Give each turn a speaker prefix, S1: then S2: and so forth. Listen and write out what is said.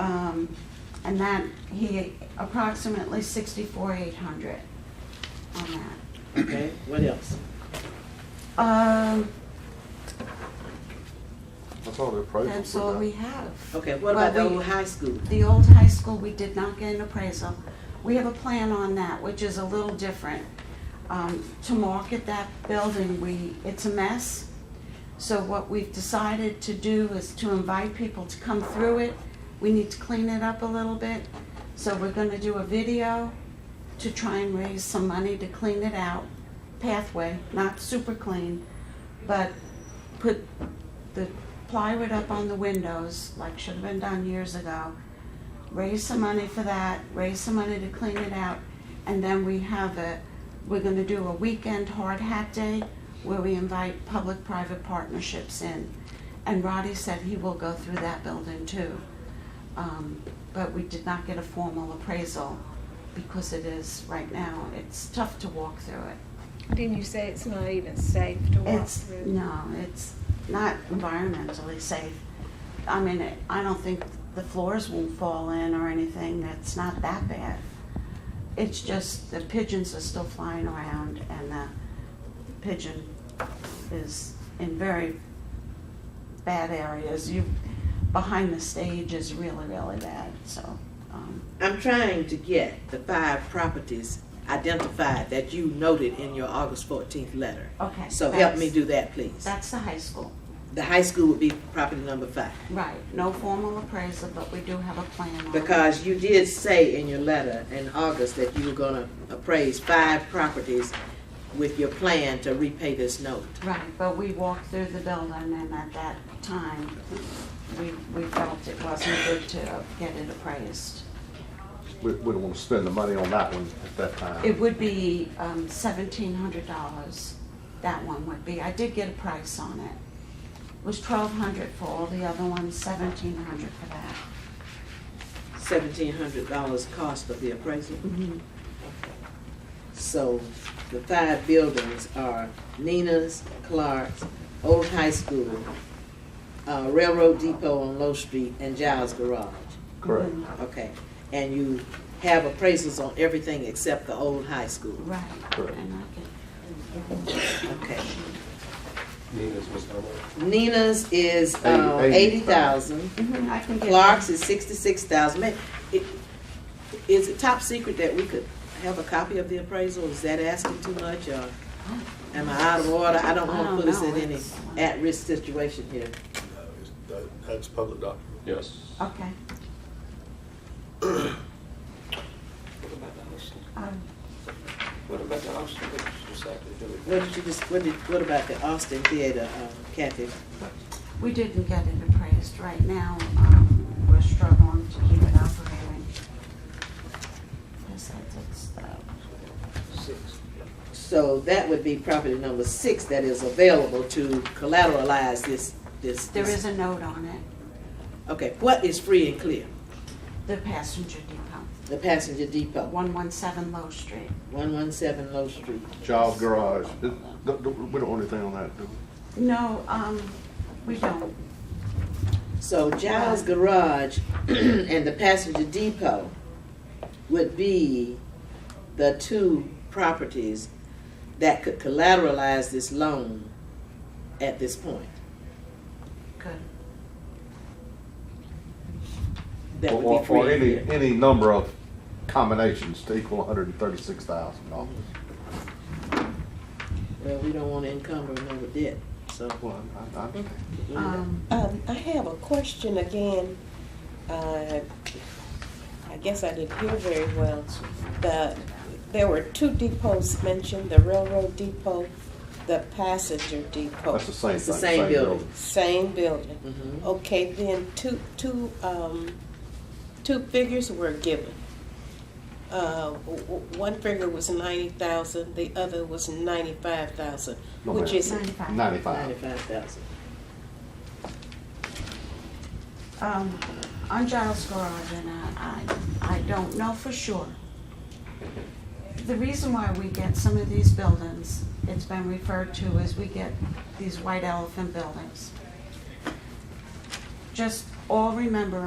S1: Um, and that, he, approximately sixty-four, eight hundred on that.
S2: Okay, what else?
S1: Um,
S3: That's all the appraisal
S1: that's
S3: for
S1: all
S3: that.
S1: we have.
S2: Okay, what about the
S1: Well, we-
S2: old high school?
S1: The old high school, we did not get an appraisal. We have a plan on that, which is a little different. Um, to market that building, we, it's a mess. So what we've decided to do is to invite people to come through it. We need to clean it up a little bit. So we're gonna do a video to try and raise some money to clean it out. Pathway, not super clean, but put the plywood up on the windows, like should have been done years ago. Raise some money for that, raise some money to clean it out, and then we have a, we're gonna do a weekend hard hat day where we invite public-private partnerships in. And Roddy said he will go through that building too. Um, but we did not get a formal appraisal because it is, right now, it's tough to walk through it.
S4: Didn't you say it's not even safe to walk
S1: It's,
S4: through?
S1: no, it's not environmentally safe. I mean, it- I don't think the floors won't fall in or anything, it's not that bad. It's just the pigeons are still flying around and the pigeon is in very bad areas. You, behind the stage is really, really bad, so, um,
S2: I'm trying to get the five properties identified that you noted in your August fourteenth letter.
S1: okay.
S2: So help
S1: that's-
S2: me do that, please.
S1: That's the high school,
S2: The high school would be property number five.
S1: right, no formal appraisal, but we do have a plan on it.
S2: Because you did say in your letter in August that you were gonna appraise five properties with your plan to repay this note.
S1: Right, but we walked through the building and at that time, we, we felt it wasn't good to get it appraised.
S3: We, we don't want to spend the money on that one at that time.
S1: It would be um, seventeen hundred dollars, that one would be. I did get a price on it. It was twelve hundred for all the other ones, seventeen hundred for that.
S2: Seventeen hundred dollars cost of the appraisal.
S1: Mhm.
S2: So the five buildings are Nina's, Clark's, Old High School, uh, Railroad Depot on Low Street, and Giles Garage.
S3: Correct.
S1: Mm-hmm.
S2: Okay, and you have appraisals on everything except the Old High School.
S1: Right.
S3: Correct.
S1: And I
S2: Okay.
S5: Nina's was how much?
S2: Nina's is uh, eighty
S3: Eighty-
S2: thousand.
S1: can, mhm, I can get.
S2: Clark's is sixty-six thousand. Is it top secret that we could have a copy of the appraisal? Is that asking too much, or am I out of order? I don't
S1: I
S2: want
S1: don't
S2: to put us
S1: know.
S2: in any
S1: It's-
S2: at-risk situation here.
S6: uh, That's public document.
S5: Yes.
S1: Okay.
S7: What about the hostel?
S1: Um,
S7: What about the hostel? What did you decide to do with
S2: What did you just, what did, what about the Austin Theater, um, Kathy?
S1: We didn't get it appraised. Right now, um, we're struggling to keep it operating. Yes, that's- that's the-
S7: six?
S2: So that would be property number six that is available to collateralize this, this.
S1: There
S2: this-
S1: is a note on it,
S2: Okay, what is free and clear?
S1: the passenger depot,
S2: The passenger depot,
S1: 117 Low Street.
S2: one one seven Low Street.
S3: Child's garage. It- th- th- we don't want anything on that, do we?
S1: No, um, we don't.
S2: So Giles Garage and the passenger depot would be the two properties that could collateralize this loan at this point.
S1: Good.
S2: That
S3: Or-
S2: would be free
S3: Or, or
S2: and
S3: any,
S2: clear.
S3: any number of combinations to equal hundred and thirty-six thousand dollars.
S2: Well, we don't want to encumber another debt, so.
S3: Well, I, I understand.
S1: Um,
S8: Um, I have a question again. Uh, I guess I didn't hear very well. The, there were two depots mentioned, the railroad depot, the passenger depot.
S3: That's the same thing.
S2: It's the same building.
S8: Same building.
S2: Mhm.
S8: Okay, then two, two, um, two figures were given. Uh, w- w- one figure was ninety thousand, the other was ninety-five thousand,
S3: No,
S8: which
S3: ma'am.
S8: is
S3: building.
S1: Ninety-five.
S3: Ninety-five.
S2: Ninety-five thousand.
S1: Um, on Giles Garage, and I, I, I don't know for sure. The reason why we get some of these buildings, it's been referred to as we get these white elephant buildings. Just all remember